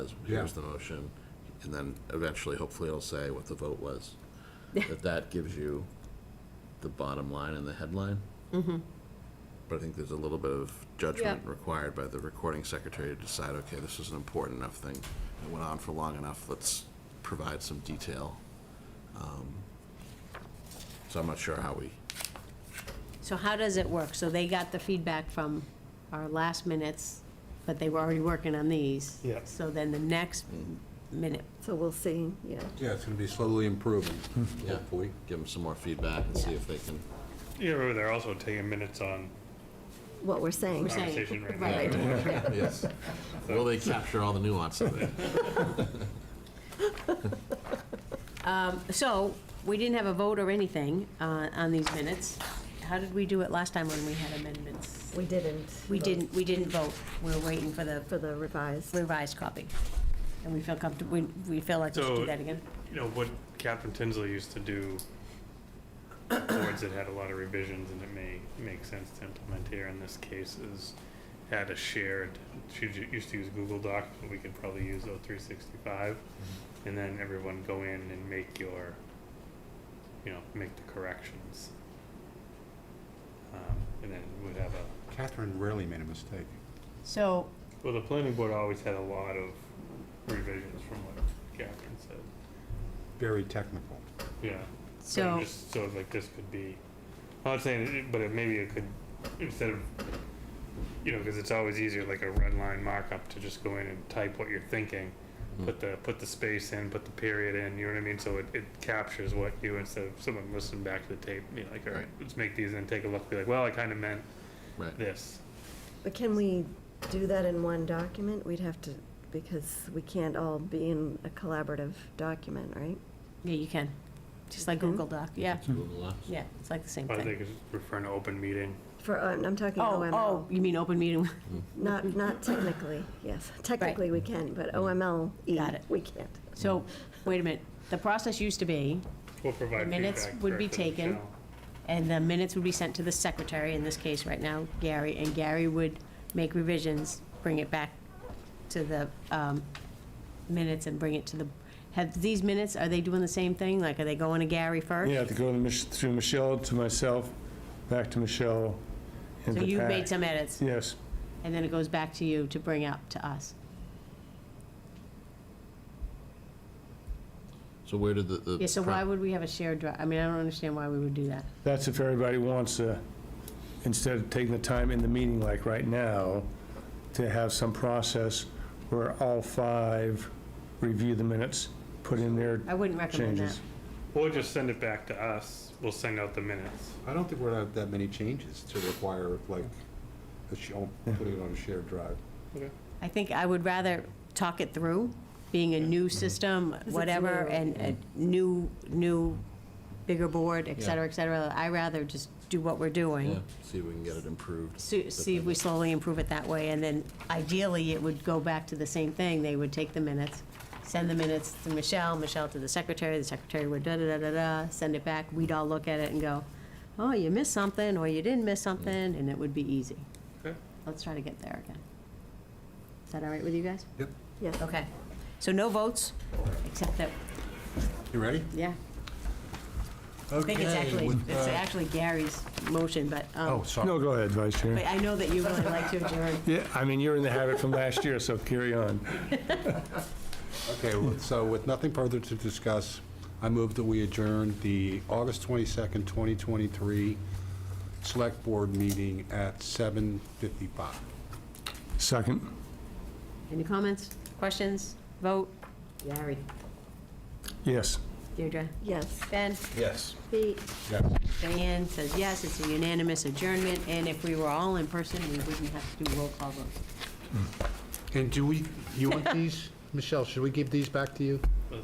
says, Yeah. here's the motion, and then eventually, hopefully, it'll say what the vote was. That that gives you the bottom line and the headline. But I think there's a little bit of judgment Mm-hmm. Yeah. required by the recording secretary to decide, okay, this is an important enough thing. It went on for long enough, let's provide some detail. Um, So I'm not sure how we, So how does it work? So they got the feedback from our last minutes, but they were already working on these. Yeah. So then the next minute, So we'll see, yeah. Yeah, it's going to be slowly improving, Yeah. hopefully. give them some more feedback and see Yeah. if they can. Yeah, remember they're also taking minutes on What we're saying. we're saying, Conversation right now. right, Yes. Will they capture all the nuance of it? So, we didn't have a vote or anything uh, on these minutes. How did we do it last time when we had amendments? We didn't. We vote didn't, we didn't vote. We were waiting for the For the revised. revised copy. And we feel comfortable, we, we feel like we should do So- that again. you know, what Captain Tinsley used to do, boards that had a lot of revisions, and it may make sense to implement here in this case, is had a shared, she ju- used to use Google Docs, but we could probably use O365, and then everyone go in and make your, you know, make the corrections. Um, And then we'd have a Catherine rarely made a mistake. So, Well, the planning board always had a lot of revisions from what Catherine said. Very technical. Yeah. But I'm so, just- So like this could be, I'm not saying, it- but it- maybe it could, instead of, you know, because it's always easier, like a red line markup, to just go in and type what you're thinking. Hmm. Put the, put the space in, put the period in, you know what I mean? So it, it captures what you, instead of someone listening back to the tape, you know, like, all right, Right. let's make these and take a look, be like, well, I kind of meant Right. this. But can we do that in one document? We'd have to, because we can't all be in a collaborative document, right? yeah, you can. Just like Google Doc, yeah, Google Docs. yeah, it's like the same I thing. think it's referring to open meeting. For, uh, I'm talking Oh, oh, OML. you mean open meeting? Not, not technically, yes. Technically, we can, but OML, Got it. E, we can't. So, wait a minute. The process used to be, We'll provide The feedback. minutes would be directly to taken. Michelle. And the minutes would be sent to the secretary, in this case right now, Gary, and Gary would make revisions, bring it back to the um, minutes and bring it to the, have these minutes, are they doing the same thing? Like, are they going to Gary first? Yeah, to go to Mich- to Michelle, to myself, back to Michelle, and So to you Pat. made some edits, Yes, and then it goes back to you to bring up to us. So where did the, the? Yeah, so why pro- would we have a shared drive? I mean, I don't understand why we would do that. that's if everybody wants to, instead of taking the time in the meeting like right now, to have some process where all five review the minutes, put in their I wouldn't recommend that. changes. Or just send it back to us, we'll send out the minutes. I don't think we're gonna have that many changes to require, like, a sh- oh, putting it on a shared drive. I think I would rather talk it through, being a new system, it's whatever, new. and a new, new, bigger board, et cetera, et cetera. I rather just do what we're Yeah, doing, see if we can get it improved. see see if we slowly improve it that way, and then ideally, it would go back to the same thing. They would take the minutes, send the minutes to Michelle, Michelle to the secretary, the secretary would da-da-da-da-da, send it back, we'd all look at it and go, oh, you missed something, or you didn't miss something, and it would be easy. Okay. Let's try to get there again. Is that all right with you guys? Yep. Yes. Okay, so no votes, except that, You ready? yeah, I think it's actually, it's actually Gary's motion, but, Uh, Oh, um, No, sorry. go ahead, Vice but Chair. I know that you really like to adjourn. Yeah, I mean, you're in the habit from last year, so carry on. Okay, well, so with nothing further to discuss, I move that we adjourn the August 22nd, 2023 Select Board meeting at 7:55. Second. Any comments, questions, vote? Gary. Yes. Deirdre? Yes. Ben? Yes. Pete? Yes. Diane says yes, it's a unanimous adjournment, and if we were all in person, we wouldn't have to do roll call votes. And do we, you want these? Michelle, should we give these back to you?